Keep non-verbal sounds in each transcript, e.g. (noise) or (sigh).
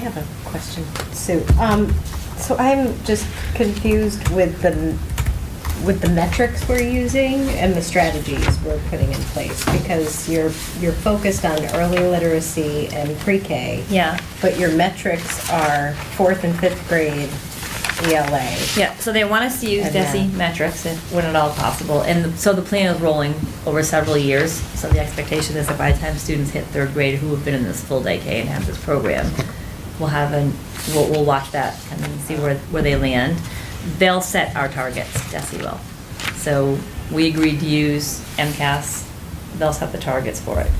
have a question, Sue. Um, so I'm just confused with the, with the metrics we're using and the strategies we're putting in place, because you're, you're focused on early literacy and pre-K. Yeah. But your metrics are fourth and fifth grade E ELA. Yeah, so they want us to use And then- DESI metrics if- when at all possible, and the- so the plan is rolling over several years. So the expectation is that by the time students hit third grade who have been in this full day K and have this program, we'll have an, we'll, we'll watch that and then see where, where they land. They'll set our targets, DESI will. So we agreed to use MCAS, they'll set the targets for it.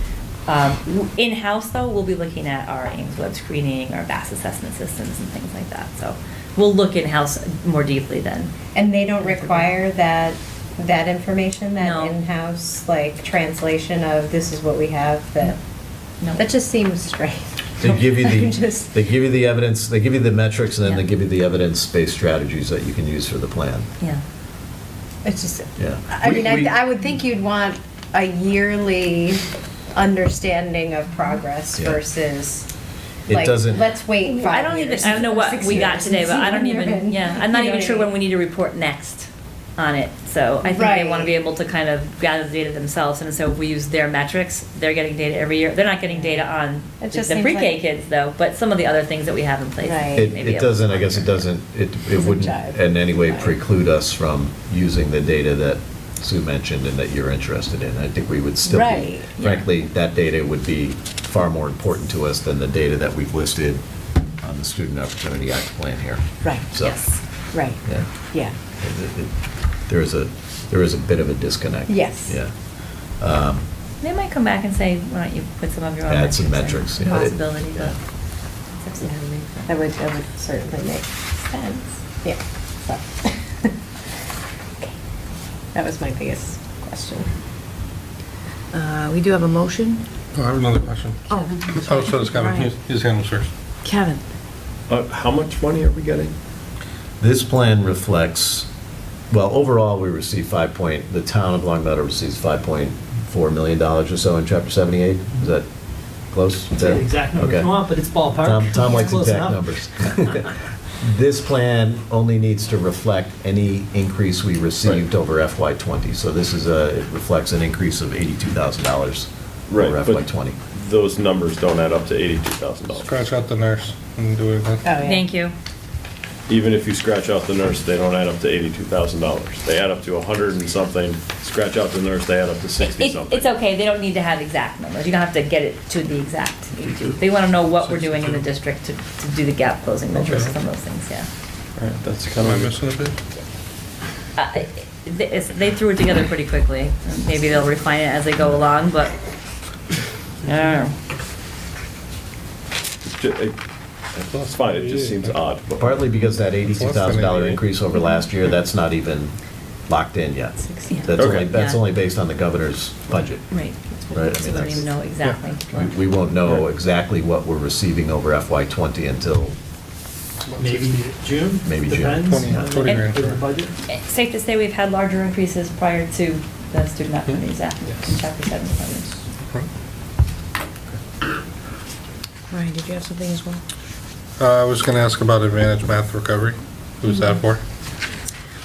Um, w- In-house though, we'll be looking at our Ames web screening, our BAS assessment systems and things like that, so we'll look in-house more deeply then. And they don't require that, that information, No. that in-house, like, translation of this is what we have, that, No. that just seems strange. They (laughs) give you I'm the, just- they give you the evidence, they give you the metrics, and then they Yeah. give you the evidence-based strategies that you can use for the plan. Yeah, It's just, Yeah. I We- mean, I, we- I would think you'd want a yearly understanding of progress Yeah. versus, It like, doesn't- let's wait I five don't even, years, I don't know what six we got years, today, and but see I don't when you're even, in. yeah, I'm not You know even what sure I when mean? we need to report next on it. So I think they want to Right. be able to kind of gather the data themselves, and so if we use their metrics, they're getting data every year. They're not getting data on the It just the seems pre-K like- kids though, but some of the other things that we have in place. Right. It, may be it able to doesn't, I guess it monitor. doesn't, it, it Doesn't wouldn't jive. in any way Right. preclude us from using the data that Sue mentioned and that you're interested in. I think we would still be, Right. frankly, that data would be far more important to us than the data that we've listed on the Student Opportunity Act plan here. Right. So, Yes. Right, Yeah. yeah. It- it- it- There is a, there is a bit of a disconnect. Yes. Yeah. Um, They might come back and say, why don't you put some of your own Add metrics some in? metrics, yeah. Possibility, Yeah. but. it's up to them. That would, that would certainly make sense, yeah. so. (laughs) Okay. That was my biggest question. Uh, We do have a motion. Oh, I have another question. Oh, Oh, so it's Kevin, Right. his his hand was first. Kevin, Uh, How much money are we getting? This plan reflects, well, overall, we receive five point, the town of Long Meadow receives five point four million dollars or so in chapter seventy-eight. Is that close? It's not the exact number Okay. you want, but it's ballpark. Tom, Tom likes Close exact enough. numbers. (laughs) (laughs) This plan only needs to reflect any increase we received over FY '20. So this is a, it reflects an increase of eighty-two thousand dollars over FY but '20. Those numbers don't add up to eighty-two thousand dollars. Scratch out the nurse and do it again. Oh, Thank you. Even if you scratch out the nurse, they don't add up to eighty-two thousand dollars. They add up to a hundred and something. Scratch out the nurse, they add up to sixty It- something. It's okay, they don't need to have exact numbers, you don't have to get it to the exact. They want to know what we're doing in the district to, to do the gap closing measures, Okay. some of those things, yeah. All right, that's Am kind I of. missing a bit? Uh, it- it's- They threw it together pretty quickly, maybe they'll refine it as they go along, but, yeah. Ju- it- It's fine, it just seems odd. but- Partly because that eighty-two thousand dollar Plus, I mean- increase over last year, that's not even locked in yet. Yeah. That's only, Okay. that's Yeah. only based on the governor's budget. Right, Right, I mean, so we don't that's- even know exactly. We- We won't know exactly what we're receiving over FY '20 until, Maybe June? Maybe June. Depends. 20, on 20 the- grand. with the budget. It's Safe to say we've had larger increases prior to the Student Opportunities Act, in Chapter 7. Ryan, did you have something as well? Uh, I was gonna ask about Advantage Math Recovery. Who's that for?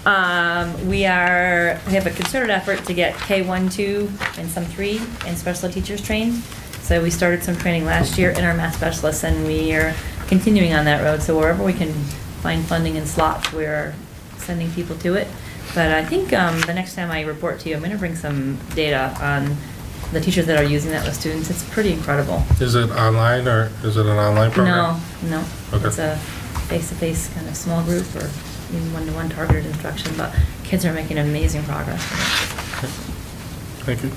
Um, we are, we have a concerted effort to get K-1, 2, and some 3, and special ed teachers trained. So we started some training last year in our math specialists, and we are continuing on that road. So wherever we can find funding and slots, we're sending people to it. But I think, um, the next time I report to you, I'm gonna bring some data on the teachers that are using that with students. It's pretty incredible. Is it online or is it an online No, program? no. Okay. It's a face-to-face kind of small group or even one-to-one targeted instruction, but kids are making amazing progress. Thank you.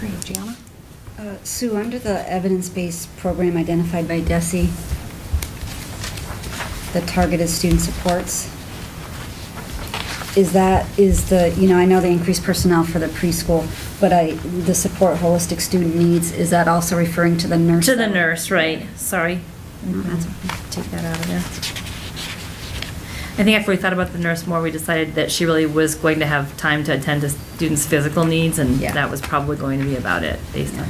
Great, Gianna? Uh, Sue, under the evidence-based program identified by DESI, the targeted student supports, is that, is the, you know, I know they increased personnel for the preschool, but I, the support holistic student needs, is that also referring to the nurse? To the nurse, right, sorry. That's- Take that out of there. I think after we thought about the nurse more, we decided that she really was going to have time to attend to students' physical needs, and Yeah. that was probably going to be about it, based on